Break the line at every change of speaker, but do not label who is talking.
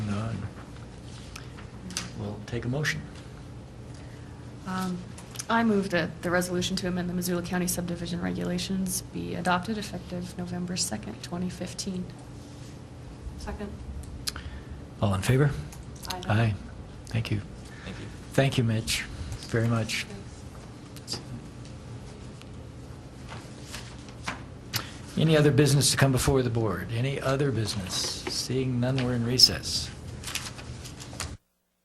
we'll take a motion.
Um, I move that the resolution to amend the Missoula County subdivision regulations be adopted effective November 2nd, 2015. Second.
All in favor?
Aye.
Thank you.
Thank you.
Thank you, Mitch, very much. Any other business to come before the board? Any other business? Seeing none, we're in recess.